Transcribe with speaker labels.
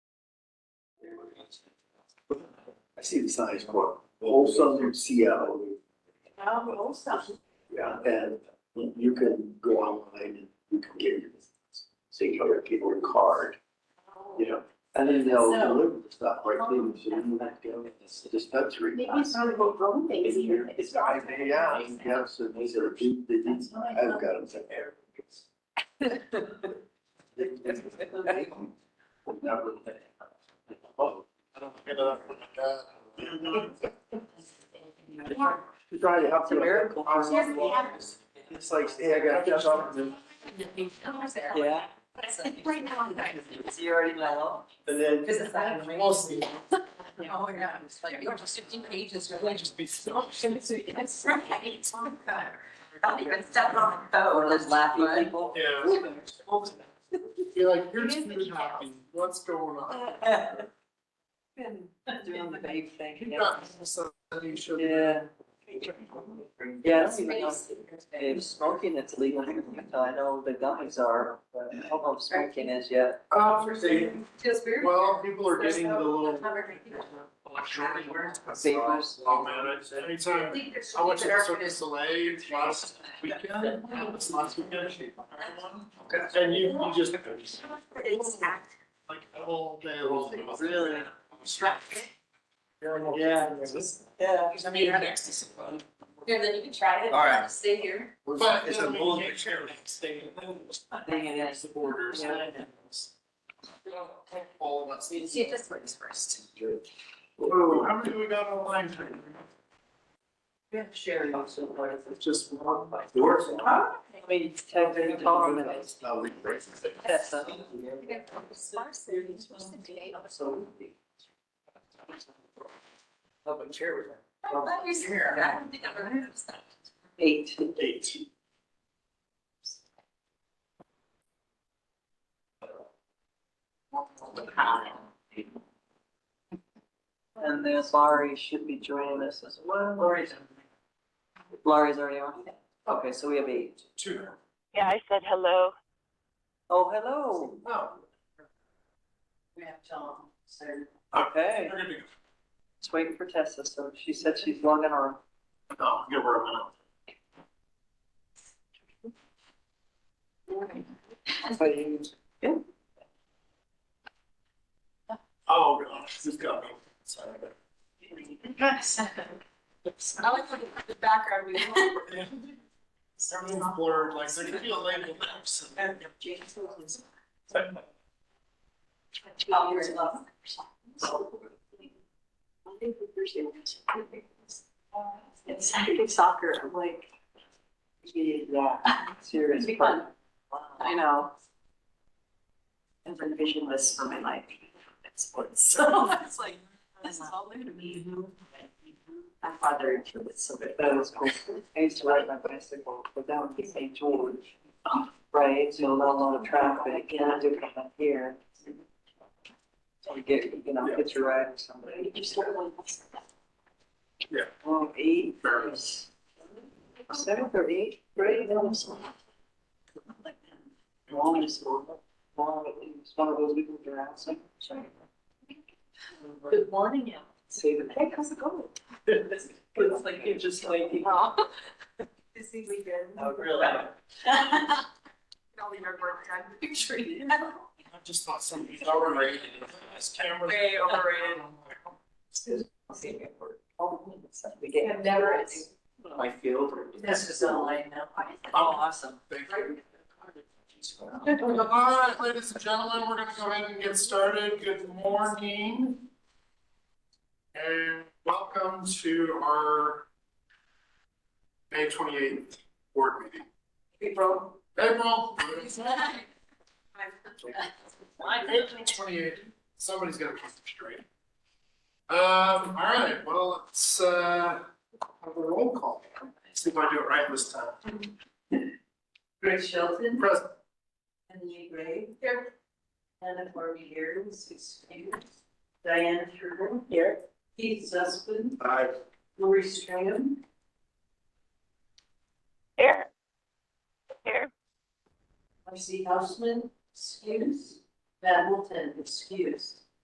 Speaker 1: I see the signs for whole southern Seattle,
Speaker 2: Um, also,
Speaker 1: yeah, and you can go online and you can get your, say, your people a card, you know, and then they'll
Speaker 2: So-
Speaker 1: deliver the stuff right to you, so you don't have to go to the dispensary.
Speaker 2: maybe it's not about wrong things here. It's
Speaker 1: I
Speaker 2: not-
Speaker 1: may, yeah, yeah, so these are, the- the-
Speaker 2: That's what I
Speaker 1: I've
Speaker 2: thought.
Speaker 1: got them to air. Oh, to try to help
Speaker 3: It's a
Speaker 1: you.
Speaker 3: miracle.
Speaker 2: She has the address.
Speaker 1: It's like, hey, I got this off, and
Speaker 3: Yeah.
Speaker 2: Right now, I'm dying.
Speaker 3: You already know.
Speaker 1: then,
Speaker 2: Because it's that mostly. Oh, yeah, it's like, you're just fifteen pages, really.
Speaker 4: Just be still.
Speaker 2: That's right. Not even step on the
Speaker 3: Or
Speaker 2: phone.
Speaker 3: those laughing people.
Speaker 4: Yeah. Be like, here's food hopping, what's going on?
Speaker 3: Uh, Doing the babe thing.
Speaker 4: You've
Speaker 3: yeah.
Speaker 4: got something should.
Speaker 3: Yeah. Yes, you know, if smoking it's legal, here in Utah, I know the gummies are, but I don't know if smoking is yet.
Speaker 4: Uh, they-
Speaker 2: Just very.
Speaker 4: well, people are getting the little.
Speaker 2: Electronic words.
Speaker 3: Papers.
Speaker 4: Oh, man, I- anytime, I went to the Circus Soleil last weekend, it's last weekend. And you, you just, like, all day long.
Speaker 3: Really?
Speaker 4: Yeah.
Speaker 3: Yeah.
Speaker 2: I mean, you're next to someone. Here, then you can try it.
Speaker 5: All right.
Speaker 2: Stay here.
Speaker 4: But.
Speaker 5: It's a bullshit.
Speaker 4: Thing.
Speaker 3: Thing it
Speaker 4: It's the borders.
Speaker 3: Yeah.
Speaker 4: All of us.
Speaker 2: See if this works first.
Speaker 4: Whoa, how many we got online?
Speaker 3: We have Sherry also, but it's
Speaker 4: Just one.
Speaker 1: doors.
Speaker 3: I mean, tell her to call them and it's
Speaker 1: Oh, we-
Speaker 3: that's a-
Speaker 1: So,
Speaker 3: of a chair.
Speaker 2: I'm glad you're here. I don't think I've ever heard of this.
Speaker 3: Eight.
Speaker 4: Eight.
Speaker 3: And there's Laurie should be joining us as well. Laurie's. Laurie's already on. Okay, so we have eight.
Speaker 4: Two.
Speaker 6: Yeah, I said hello.
Speaker 3: Oh, hello.
Speaker 4: Oh.
Speaker 2: We have Tom, so.
Speaker 3: Okay.
Speaker 4: We're gonna be-
Speaker 3: Let's wait for Tessa. So she said she's logging on.
Speaker 4: No, give her a minute. Oh, gosh, this got me. Sorry.
Speaker 2: I like when the background we have.
Speaker 4: Everything's blurred, like, there could be a label.
Speaker 2: It's Saturday soccer, I'm like,
Speaker 3: Yeah. Serious.
Speaker 2: Be
Speaker 3: fun.
Speaker 2: I know. I've been visionless for my life, it's sports, so it's like, this is all new to me. My father into it, so good.
Speaker 3: That was cool. I used to ride my bicycle, but that would be St. George. Right, so not a lot of traffic, and I do come up here. So you get, you know, get your ride with somebody.
Speaker 4: Yeah.
Speaker 3: Oh, eight,
Speaker 4: Fair.
Speaker 2: Oh,
Speaker 3: seventh or eighth grade, that was long as, long, it was one of those we moved around, so.
Speaker 2: Good morning,
Speaker 3: Say the.
Speaker 2: Hey, how's it going?
Speaker 3: It's like you're just waking up.
Speaker 2: Oh. Busy weekend.
Speaker 3: Oh, really?
Speaker 2: All the work time, picturing.
Speaker 4: I just thought somebody's already. This camera.
Speaker 2: Way overrated.
Speaker 3: We get.
Speaker 2: never.
Speaker 3: My field.
Speaker 2: This is all I know.
Speaker 3: Oh, awesome.
Speaker 4: Thank you. All right, ladies and gentlemen, we're gonna go ahead and get started. Good morning. And welcome to our May twenty-eighth board meeting.
Speaker 2: April.
Speaker 4: April,
Speaker 2: Mine.
Speaker 4: April twenty-eighth, somebody's gonna keep it straight. Um, all right, well, let's, uh, have a roll call. See if I do it right this time.
Speaker 2: Greg Shelton,
Speaker 4: Present.
Speaker 2: Anthony Gray. Here. Anna Barbie here, six years. Diana Turner. Here. Keith Zussman,
Speaker 4: Aye.
Speaker 2: Lori Stram.
Speaker 6: Here. Here.
Speaker 2: Marcy Hausman, excuse. Matt Wilton, excuse.